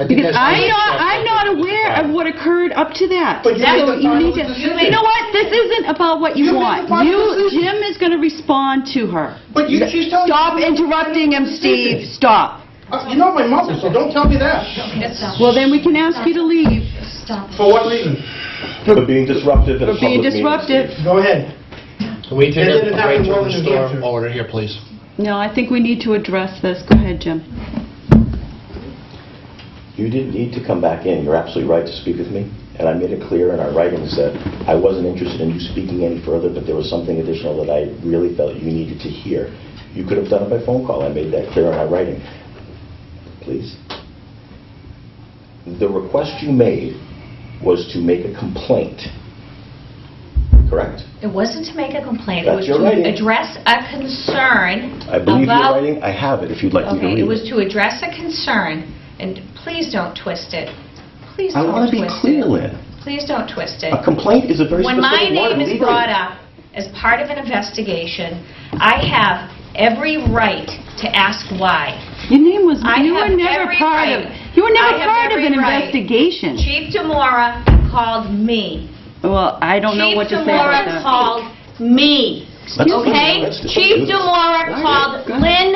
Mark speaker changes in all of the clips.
Speaker 1: I think
Speaker 2: Because
Speaker 1: that's-
Speaker 2: I'm not, I'm not aware of what occurred up to that.
Speaker 1: But you made
Speaker 2: So
Speaker 1: the
Speaker 2: you need
Speaker 1: final
Speaker 2: to,
Speaker 1: decision.
Speaker 2: you know what, this isn't about what
Speaker 1: You
Speaker 2: you
Speaker 1: made the
Speaker 2: want.
Speaker 1: final
Speaker 2: You, Jim
Speaker 1: decision.
Speaker 2: is going to respond to her.
Speaker 1: But you, she's telling me.
Speaker 2: Stop interrupting him, Steve, stop.
Speaker 1: Uh, You know my mother, so don't tell me that.
Speaker 2: Well, then we can ask you to leave
Speaker 3: Stop.
Speaker 1: For what reason?
Speaker 4: For being disruptive in a
Speaker 2: for
Speaker 4: public
Speaker 2: being
Speaker 4: meeting.
Speaker 2: disruptive.
Speaker 1: Go ahead.
Speaker 5: Can we take
Speaker 1: It
Speaker 5: a
Speaker 1: didn't happen
Speaker 5: break
Speaker 1: well
Speaker 5: to
Speaker 1: in
Speaker 5: restore
Speaker 1: Hampshire.
Speaker 5: order here, please?
Speaker 2: No, I think we need to address this. Go ahead, Jim.
Speaker 4: You didn't need to come back in. You're absolutely right to speak with me. And I made it clear in our writings that I wasn't interested in you speaking any further, but there was something additional that I really felt you needed to hear. You could have done it by phone call. I made that clear in our writing. Please. The request you made was to make a complaint, correct?
Speaker 3: It wasn't to make a complaint, it
Speaker 4: That's
Speaker 3: was
Speaker 4: your writing.
Speaker 3: to address a concern
Speaker 4: I believe your
Speaker 3: about-
Speaker 4: writing, I have it if you'd like me to read
Speaker 3: Okay,
Speaker 4: it.
Speaker 3: it was to address a concern, and please don't twist it. Please
Speaker 4: I
Speaker 3: don't
Speaker 4: wanna
Speaker 3: twist
Speaker 4: be
Speaker 3: it.
Speaker 4: clear, Lynn.
Speaker 3: Please don't twist it.
Speaker 4: A complaint is a very
Speaker 3: When
Speaker 4: specific
Speaker 3: my
Speaker 4: word
Speaker 3: name is
Speaker 4: legally.
Speaker 3: brought up as part of an investigation, I have every right to ask why.
Speaker 2: Your name was,
Speaker 3: I
Speaker 2: you were
Speaker 3: have
Speaker 2: never
Speaker 3: every
Speaker 2: part of,
Speaker 3: right.
Speaker 2: you were
Speaker 3: I
Speaker 2: never
Speaker 3: have
Speaker 2: part of
Speaker 3: every
Speaker 2: an
Speaker 3: right.
Speaker 2: investigation.
Speaker 3: Chief Demora called me.
Speaker 2: Well, I don't know what to say about
Speaker 3: Chief Demora
Speaker 2: that.
Speaker 3: called me.
Speaker 4: Let's
Speaker 3: Okay?
Speaker 4: let's just do
Speaker 3: Chief
Speaker 4: this.
Speaker 3: Demora called Lynn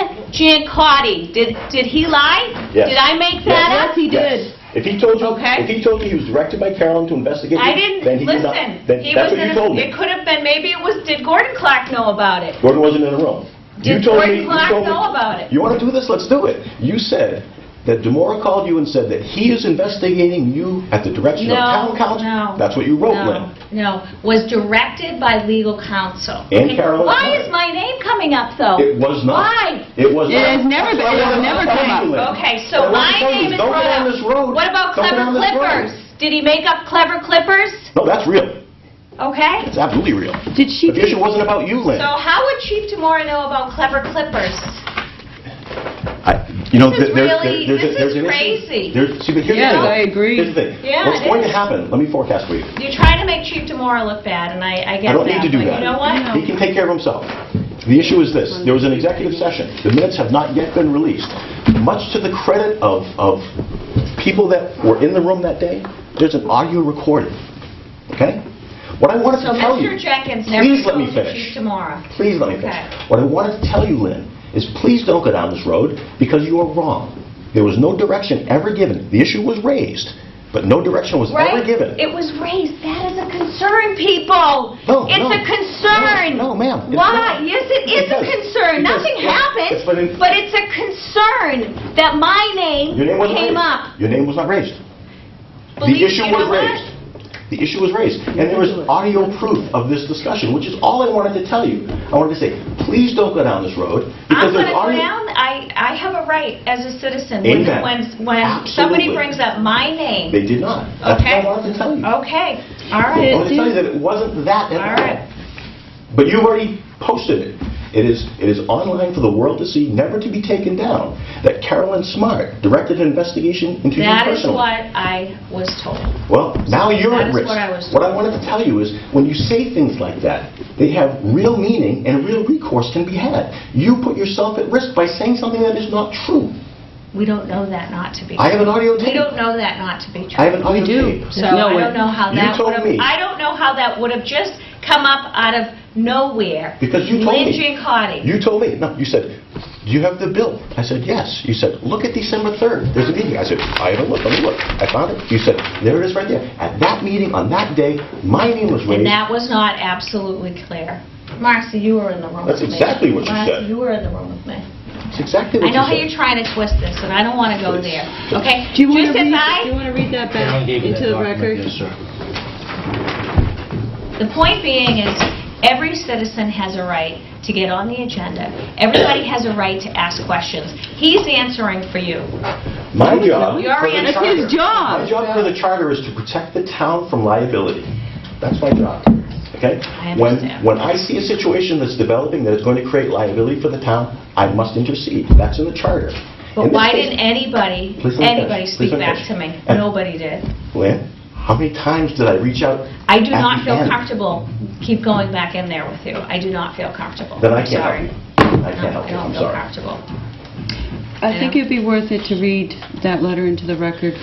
Speaker 3: Giancotti. Did did he lie?
Speaker 4: Yes.
Speaker 3: Did I
Speaker 2: Yes,
Speaker 3: make that up?
Speaker 2: he did.
Speaker 4: Yes. If he told you,
Speaker 3: Okay.
Speaker 4: if he told you he was directed by Carolyn to investigate
Speaker 3: I
Speaker 4: you, then
Speaker 3: didn't,
Speaker 4: he did not.
Speaker 3: listen.
Speaker 4: then
Speaker 3: He
Speaker 4: That's
Speaker 3: was
Speaker 4: what
Speaker 3: in.
Speaker 4: you
Speaker 3: a-
Speaker 4: told
Speaker 3: It
Speaker 4: me.
Speaker 3: could have been, maybe it was, did Gordon Clark know about it?
Speaker 4: Gordon wasn't in the room. You
Speaker 3: Did
Speaker 4: told
Speaker 3: Gordon
Speaker 4: me- you
Speaker 3: Clark
Speaker 4: told me-
Speaker 3: know about it?
Speaker 4: You want to do this? Let's do it. You said that Demora called you and said that he is investigating you at the direction of
Speaker 3: No,
Speaker 4: town council.
Speaker 3: no,
Speaker 4: That's what you wrote,
Speaker 3: no,
Speaker 4: Lynn.
Speaker 3: No, was directed by legal counsel.
Speaker 4: And
Speaker 3: Okay,
Speaker 4: Carolyn
Speaker 3: Why
Speaker 4: Clark.
Speaker 3: is my name coming up, though?
Speaker 4: It was not.
Speaker 3: Why?
Speaker 4: It was
Speaker 2: It
Speaker 4: not.
Speaker 2: has never been- it has never come up.
Speaker 3: Okay, so my name is
Speaker 4: Don't
Speaker 3: brought
Speaker 4: get on
Speaker 3: up.
Speaker 4: this road.
Speaker 3: What about
Speaker 4: Don't get
Speaker 3: Clever
Speaker 4: on this road.
Speaker 3: Clippers? Did he make up Clever Clippers?
Speaker 4: No, that's real.
Speaker 3: Okay?
Speaker 4: It's absolutely real.
Speaker 2: Did she,
Speaker 4: But The issue wasn't about you, Lynn.
Speaker 3: So how would Chief Demora know about Clever Clippers?
Speaker 4: I- You know,
Speaker 3: This is
Speaker 4: there- there-
Speaker 3: really-
Speaker 4: there's a-
Speaker 3: this
Speaker 4: there's
Speaker 3: is
Speaker 4: an issue.
Speaker 3: crazy.
Speaker 4: There's- see, but here's the
Speaker 2: Yes,
Speaker 4: thing.
Speaker 2: I agree.
Speaker 4: Here's the thing.
Speaker 3: Yeah,
Speaker 4: What's
Speaker 3: it
Speaker 4: going to
Speaker 3: is.
Speaker 4: happen, let me forecast for you.
Speaker 3: You're trying to make Chief Demora look bad, and I I get that.
Speaker 4: I don't need to do
Speaker 3: but
Speaker 4: that.
Speaker 3: you know what?
Speaker 4: He can take care of himself. The issue is this, there was an executive session, the minutes have not yet been released. Much to the credit of, of people that were in the room that day, there's an audio recording, okay? What I wanted
Speaker 3: So
Speaker 4: to tell you...
Speaker 3: Mr. Jenkins never
Speaker 4: Please let me
Speaker 3: told you
Speaker 4: finish.
Speaker 3: Chief Demora.
Speaker 4: Please let me
Speaker 3: Okay.
Speaker 4: finish. What I wanted to tell you, Lynn, is please don't go down this road because you are wrong. There was no direction ever given. The issue was raised, but no direction was ever
Speaker 3: Right?
Speaker 4: given.
Speaker 3: It was raised. That is a concern, people.
Speaker 4: No,
Speaker 3: It's
Speaker 4: no.
Speaker 3: a concern.
Speaker 4: No, no, ma'am, it's
Speaker 3: Why?
Speaker 4: not.
Speaker 3: Yes, it is a
Speaker 4: Because-
Speaker 3: concern.
Speaker 4: because-
Speaker 3: Nothing
Speaker 4: yes,
Speaker 3: happened,
Speaker 4: but it-
Speaker 3: but it's a concern that my name
Speaker 4: Your name wasn't
Speaker 3: came
Speaker 4: raised.
Speaker 3: up.
Speaker 4: Your name was not raised. The
Speaker 3: Believe-
Speaker 4: issue
Speaker 3: you
Speaker 4: was
Speaker 3: know what?
Speaker 4: raised. The issue was raised, and there was audio proof of this discussion, which is all I wanted to tell you. I wanted to say, please don't go down this road
Speaker 3: I'm
Speaker 4: because
Speaker 3: going to
Speaker 4: there's
Speaker 3: go
Speaker 4: audio...
Speaker 3: down, I, I have a right as a citizen. when-
Speaker 4: Amen.
Speaker 3: When, when somebody
Speaker 4: Absolutely.
Speaker 3: brings up my name.
Speaker 4: They did not. That's what
Speaker 3: Okay.
Speaker 4: I wanted to tell you.
Speaker 3: Okay, all
Speaker 4: I
Speaker 3: right.
Speaker 4: wanted to tell you that it wasn't that at
Speaker 3: All right.
Speaker 4: But you've already posted it. It is, it is online for the world to see, never to be taken down, that Carolyn Smart directed an investigation into you
Speaker 3: That is
Speaker 4: personally.
Speaker 3: what I was told.
Speaker 4: Well, now you're
Speaker 3: That
Speaker 4: at
Speaker 3: is what
Speaker 4: risk.
Speaker 3: I was
Speaker 4: I wanted to tell you is, when you say things like that, they have real meaning and real recourse can be had. You put yourself at risk by saying something that is not true.
Speaker 3: We don't know that not to be.
Speaker 4: I have an audio
Speaker 3: We
Speaker 4: tape.
Speaker 3: don't know that not to be true.
Speaker 4: I have an audio tape.
Speaker 3: So
Speaker 2: No
Speaker 3: I
Speaker 2: way.
Speaker 3: don't know how
Speaker 4: You
Speaker 3: that
Speaker 4: told
Speaker 3: would have,
Speaker 4: me.
Speaker 3: I don't know how that would have just come up out of nowhere.
Speaker 4: Because you told
Speaker 3: Lynn
Speaker 4: me.
Speaker 3: Giancotti.
Speaker 4: You told me, no, you said, do you have the bill? I said, yes. You said, look at December 3rd, there's a meeting. I said, I haven't looked, let me look. I found it. You said, there it is right there. At that meeting, on that day, my name was
Speaker 3: And
Speaker 4: raised.
Speaker 3: that was not absolutely clear. Marcy, you were in the room
Speaker 4: That's
Speaker 3: with me.
Speaker 4: exactly what you
Speaker 3: Marcy,
Speaker 4: said.
Speaker 3: you were in the room with me.
Speaker 4: It's exactly
Speaker 3: I
Speaker 4: what you said.
Speaker 3: know how you're trying to twist this, and I don't want to go
Speaker 4: Please.
Speaker 3: there, okay?
Speaker 2: do you want to
Speaker 3: Just as
Speaker 2: read, do you
Speaker 3: I,
Speaker 2: want to read that
Speaker 5: Carolyn
Speaker 2: back
Speaker 5: gave you that
Speaker 2: into the
Speaker 5: document.
Speaker 2: record?
Speaker 5: Yes, sir.
Speaker 3: the point being is, every citizen has a right to get on the agenda. Everybody has a right to ask questions. He's answering for you.
Speaker 4: My job.
Speaker 3: You already
Speaker 4: for the
Speaker 3: answered.
Speaker 2: That's his job.
Speaker 4: charter- My job for the charter is to protect the town from liability. That's my job, okay?
Speaker 3: I
Speaker 4: When-
Speaker 3: understand.
Speaker 4: When I see a situation that's developing that is going to create liability for the town, I must intercede. That's in the charter. In
Speaker 3: But
Speaker 4: this
Speaker 3: why
Speaker 4: case-
Speaker 3: didn't anybody,
Speaker 4: Please don't
Speaker 3: anybody
Speaker 4: finish.
Speaker 3: speak
Speaker 4: Please don't
Speaker 3: back
Speaker 4: finish.
Speaker 3: to me?
Speaker 4: And-
Speaker 3: Nobody did.
Speaker 4: Lynn, how many times did I reach out?
Speaker 3: I do
Speaker 4: at
Speaker 3: not
Speaker 4: the
Speaker 3: feel
Speaker 4: end?
Speaker 3: comfortable, keep going back in there with you. I do not feel comfortable.
Speaker 4: Then I
Speaker 3: I'm
Speaker 4: can't help
Speaker 3: sorry.
Speaker 4: you. I
Speaker 3: No,
Speaker 4: can't help you, I'm
Speaker 3: I don't feel
Speaker 4: sorry.
Speaker 3: comfortable. you
Speaker 2: I think
Speaker 3: know?
Speaker 2: it'd be worth it to read that letter into the record